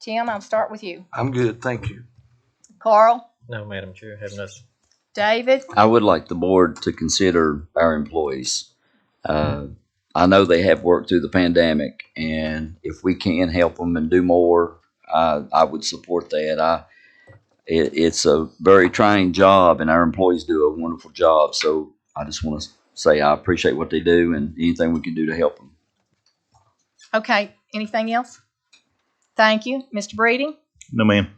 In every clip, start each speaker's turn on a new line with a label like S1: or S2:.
S1: Tim, I'll start with you.
S2: I'm good, thank you.
S1: Carl,
S3: No, Madam Chair, have nothing.
S1: David,
S4: I would like the board to consider our employees. Uh, I know they have worked through the pandemic, and if we can help them and do more, I, I would support that. I, it, it's a very trying job, and our employees do a wonderful job. So I just want to say I appreciate what they do and anything we can do to help them.
S1: okay, anything else? Thank you. Mr. Breeding,
S5: No, ma'am.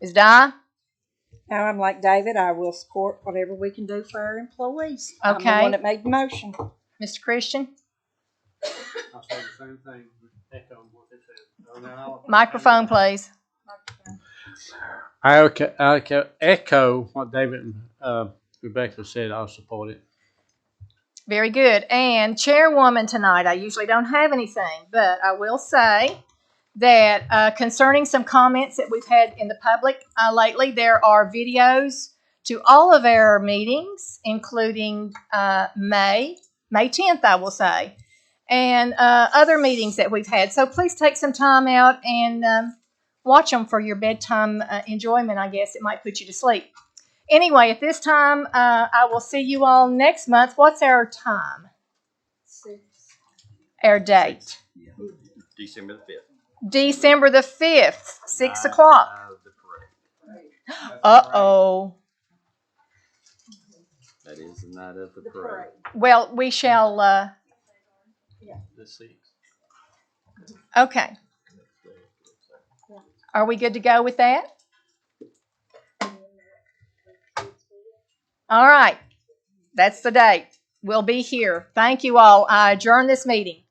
S1: Ms. Di,
S6: Now, I'm like David, I will support whatever we can do for our employees. I'm
S1: Okay.
S6: the one that made the motion.
S1: Mr. Christian,
S2: I say the same thing, echo what they said.
S1: microphone, please.
S7: I echo, I echo- echo what David and uh, Rebecca said. I'll support it.
S1: Very good. And chairwoman tonight, I usually don't have anything, but I will say that uh, concerning some comments that we've had in the public uh, lately, there are videos to all of our meetings, including uh, May, May 10th, I will say, and uh, other meetings that we've had. So please take some time out and um, watch them for your bedtime uh, enjoyment, I guess. It might put you to sleep anyway, at this time, uh, I will see you all next month. What's our time? Our date?
S3: December the fifth.
S1: December the 5th, 6 o'clock. Uh oh.
S4: That is the night of the
S1: Well, we shall, uh,
S3: The sixth.
S1: okay. Are we good to go with that? All right. That's the date. We'll be here. Thank you all. I adjourn this meeting.